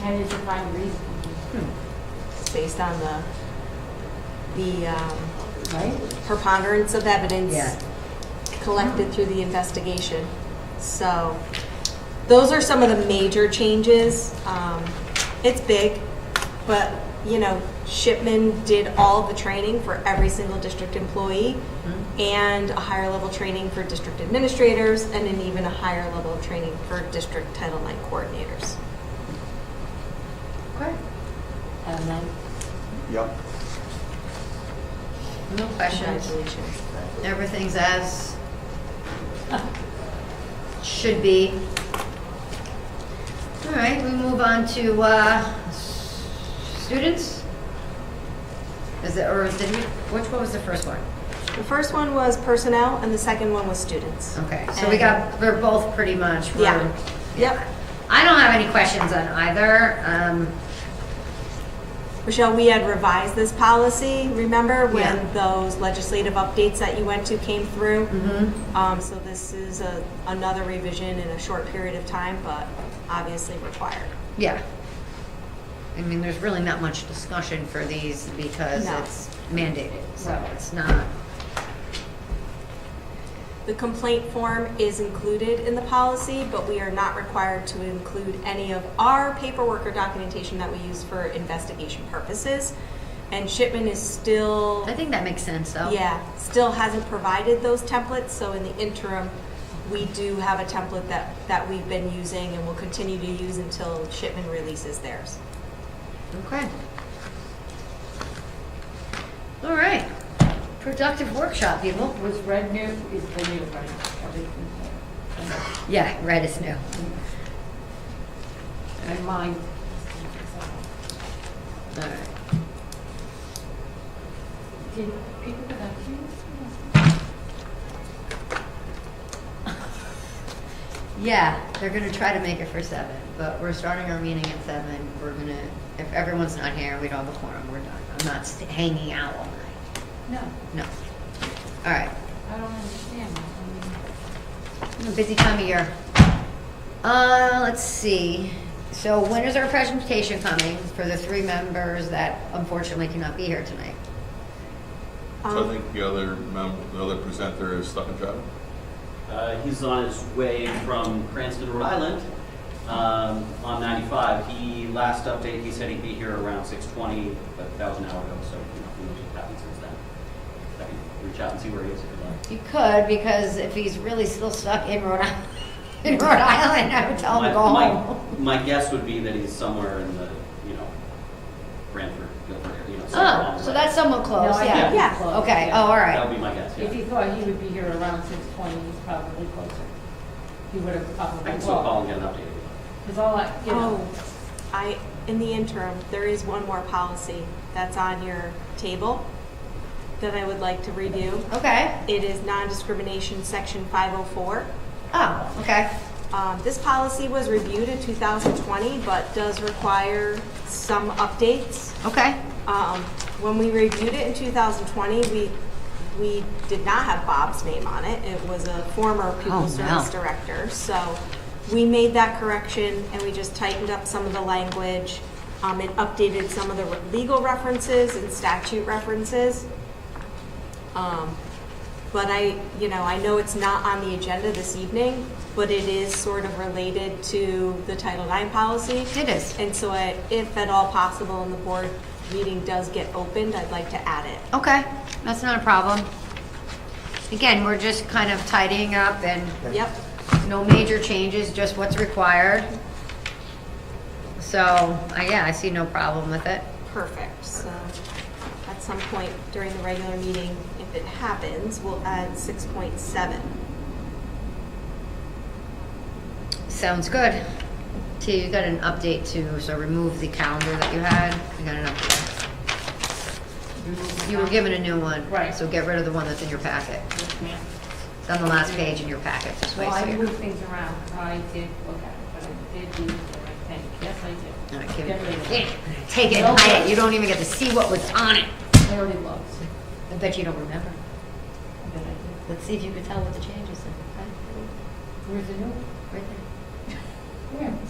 How did you find the reason? It's based on the, the um, Right? preponderance of evidence Yeah. collected through the investigation. So those are some of the major changes. Um, It's big, but, you know, Shipman did all the training for every single district employee and a higher level training for district administrators and an even a higher level of training for district Title IX coordinators. Okay. Um, then, Yep. No questions. Congratulations. Everything's as should be. All right, we move on to uh, s- students. Is it, or did we, which one was the first one? The first one was personnel, and the second one was students. Okay, so we got, they're both pretty much. we're- Yeah. Yep. I don't have any questions on either. Um, Michelle, we had revised this policy, remember, Yeah. when those legislative updates that you went to came through? mhm. Um, so this is a, another revision in a short period of time, but obviously required. Yeah. I mean, there's really not much discussion for these because No. it's mandated, so Right. it's not, The complaint form is included in the policy, but we are not required to include any of our paperwork or documentation that we use for investigation purposes. And Shipman is still I think that makes sense, though. Yeah, still hasn't provided those templates, so in the interim, we do have a template that, that we've been using and will continue to use until Shipman releases theirs. Okay. All right. Productive workshop, people. was red new, is the new one, everything, Yeah, red is new. and mine. All right. Did people go back to you? Yeah, they're gonna try to make it for seven, but we're starting our meeting at seven. We're gonna, if everyone's not here, we don't have a quorum, we're done. I'm not st- hanging out all night. No, No. All right. I don't understand. I Busy time of year. Uh, let's see. So when is our presentation coming for the three members that unfortunately cannot be here tonight? Um, So I think the other member, the other presenter is stuck in traffic. Uh, he's on his way from Cranston, Rhode Island, um, on 95. He, last update, he said he'd be here around 6:20, but that was an hour ago, so you know, who knows what's happened since then. I can reach out and see where he is if you'd like. You could, because if he's really still stuck in Rhode Island, in Rhode Island, I would tell him to go My- my- home. My guess would be that he's somewhere in the, you know, Branford, Guilford, area, you know, somewhere on Oh, the so way. that's somewhat don't- close, No, I yeah. think Yeah. he's close, Okay, oh, all That right. would be my guess, If yeah. he thought he would be here around six twenty, he's probably closer. He would have I probably can still call called. and get an update if you'd like. Because all I, you Oh, know, I, in the interim, there is one more policy that's on your table that I would like to review. Okay, It is non-discrimination, section 504. oh, okay. Um, This policy was reviewed in 2020, but does require some updates. Okay. Um, When we reviewed it in 2020, we, we did not have Bob's name on it. It was a former Oh, pupil no. service director. So we made that correction and we just tightened up some of the language um, and updated some of the re- legal references and statute references. Um, But I, you know, I know it's not on the agenda this evening, but it is sort of related to the Title IX policy. It is. And so I- if at all possible and the board meeting does get opened, I'd like to add it. Okay, that's not a problem. Again, we're just kind of tidying up and Yep, No major changes, just what's required. So, I- yeah, I see no problem with it. perfect. So at some point during the regular meeting, if it happens, we'll add 6.7. Sounds good. T, you got an update too, so remove the calendar that you had. You got an update. You were given a new one. Right. So get rid of the one that's in your packet. yes, ma'am. It's on the last page in your packet, this way. Well, so I you- moved things around. I did look at it, but I did leave it, I think. Yes, I did. All right, give Get rid it- of Yeah, it. Take it, and hide it. You don't even get to see what was on it. I already looked. I bet you don't remember. but I did. Let's see if you can tell what the changes are. Where's the new one? Right there. Where?